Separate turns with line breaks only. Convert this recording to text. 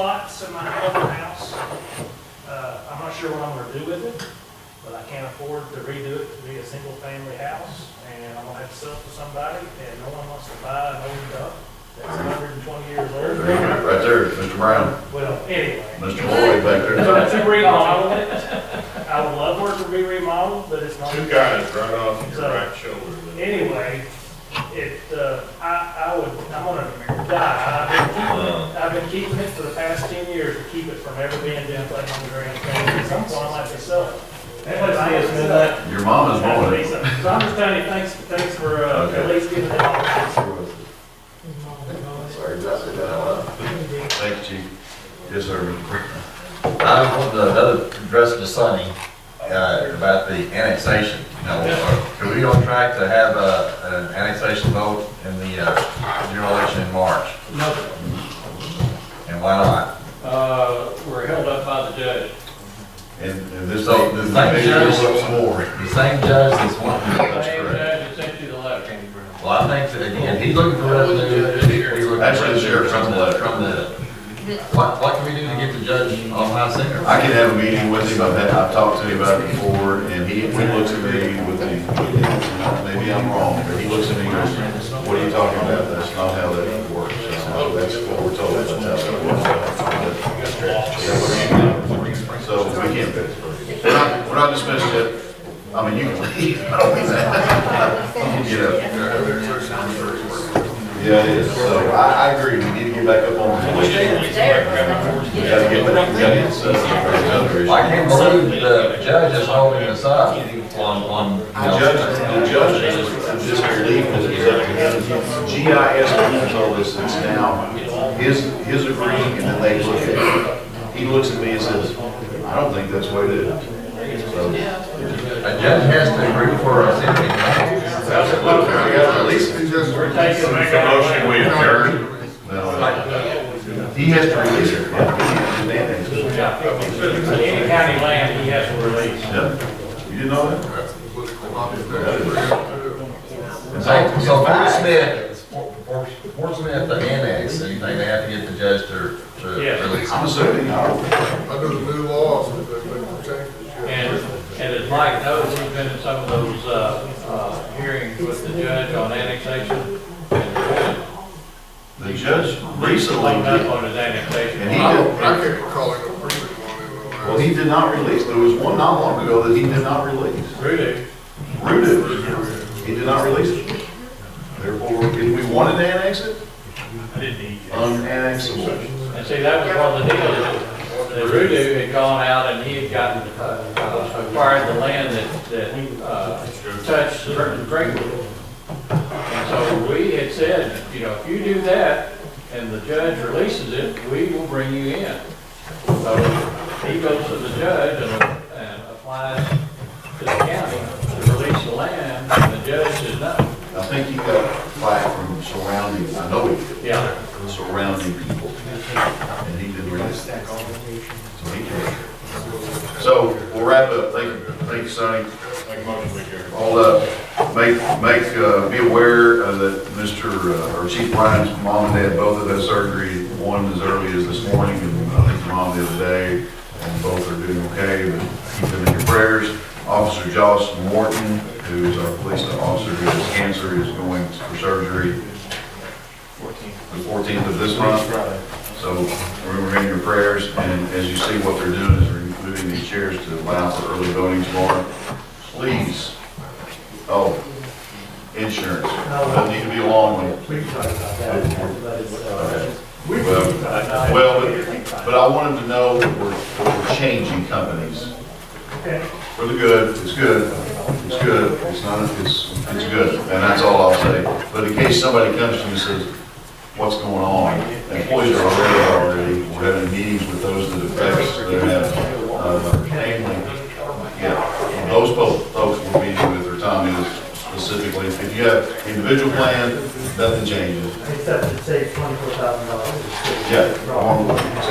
lots in my other house. Uh, I'm not sure what I'm gonna do with it, but I can't afford to redo it to be a single-family house, and I'm gonna have to sell it to somebody, and no one wants to buy an old dump that's hundred and twenty years
There you
old.
go, Right there, it's Mr. Brown,
Well, anyway.
Mr. Lloyd back
So
there.
to remodel it, I would love for it to be remodeled, but it's not.
Two guys right off your
So-
right shoulder.
Anyway, it, uh, I, I would, I'm gonna
Uh.
die. I've been keeping it, I've been keeping it for the past ten years to keep it from ever being down played on the grand stand. At some point, I'll have to sell it.
Your mom is
Have to be
mowing it.
something. So I'm just telling you, thanks, thanks for, uh, at least giving it all.
Sorry, did I say that out loud? Thank you, chief. Yes, sir. Mr. Brown.
I want to another address to Sonny, uh, about the annexation. Now, are are we on track to have, uh, an annexation vote in the, uh, general election in March?
No,
And why not?
uh, we're held up by the judge.
And and this,
So,
this is
thank you.
looks more.
The same judge that's wanting to
Same
That's correct.
judge that sent you the letter.
Well, I think that, again, he's looking for revenue. he's looking for
Actually, the
revenue
sheriff's on the letter.
From the, what, what can we do to get the judge on high center?
I can have a meeting with him, I've had, I've talked to him about it before, and he, he looks at me with the, maybe I'm wrong, but he looks at me and goes, what are you talking about? That's not how that works. So That's what we're told, that's how it works. So we can't, we're not, we're not dismissing it, I mean, you can leave, I don't mean that. You know. Yeah, it is, so I, I agree, we need to get back up on the we gotta get, we gotta get, uh, another issue.
I can't believe the judge is holding us up on, on.
The judge, the judge is just relieved that he's up to him. GIS rules all this, it's now, his, his agreeing, and then they look at it. He looks at me and says, I don't think that's what it is. So,
A judge has to agree for us anything.
that's a little, I got at least,
We're taking it
Make a motion, we adjourn.
no, he has to release it. Yeah.
Any county land he has to release.
You didn't know that?
So, so Fort Smith, Fort Fort Smith, the annex, anything they have to get the judge to, to
Yes.
release.
I'm assuming, I don't.
Under the new laws, if they make changes, yeah.
And, and as Mike knows, he's been in some of those, uh, uh, hearings with the judge on annexation. And the judge
The judge
hung
recently,
up on his annexation.
And he-
I
Oh,
don't, I can't recall any agreement on it. on that.
Well, he did not release, there was one not long ago that he did not release.
Really?
Rooted, he did not release it. Therefore, if we wanted to annex it,
I didn't need
unannexable.
And see, that was one of the deals, that Rudu had gone out and he had gotten, uh, uh, acquired the land that, that, uh, touched certain Greenwood. And so we had said, you know, if you do that and the judge releases it, we will bring you in. So he goes to the judge and, and applies to the county to release the land and the judge says no.
I think he got flack from uh, surrounding, I know he did,
Yeah.
from surrounding people. And he didn't release it. So he can't. So we'll wrap up. Thank you, thank you, Sonny.
Make a motion, we adjourn.
All uh, up, make, make, uh, be aware of that Mr., uh, or Chief Ryan's mom and dad both have had surgery, one as early as this morning, and I think your mom the other day, and both are doing okay, but keep them in your prayers. Officer Josh Morton, who's our police officer who has cancer, is going for surgery the fourteenth of this month. So remember in your prayers, and as you see what they're doing is removing these chairs to allow for early voting tomorrow. Please, oh, insurance, don't need to be a long one.
Please talk about uh, that.
Well, well, but, but I want them to know that we're, that we're changing companies.
Okay.
For the good, it's good, it's good, it's not, it's, it's good, and that's all I'll say. But in case somebody comes to me and says, what's going on? Employees are already, already, we're having meetings with those that affects, that have, uh, namely, yeah, those folks, folks we're meeting with, or Tommy specifically. If you have individual plan, nothing changes.
Except it saves twenty-four thousand dollars.
Yeah, I want to look, so Oh,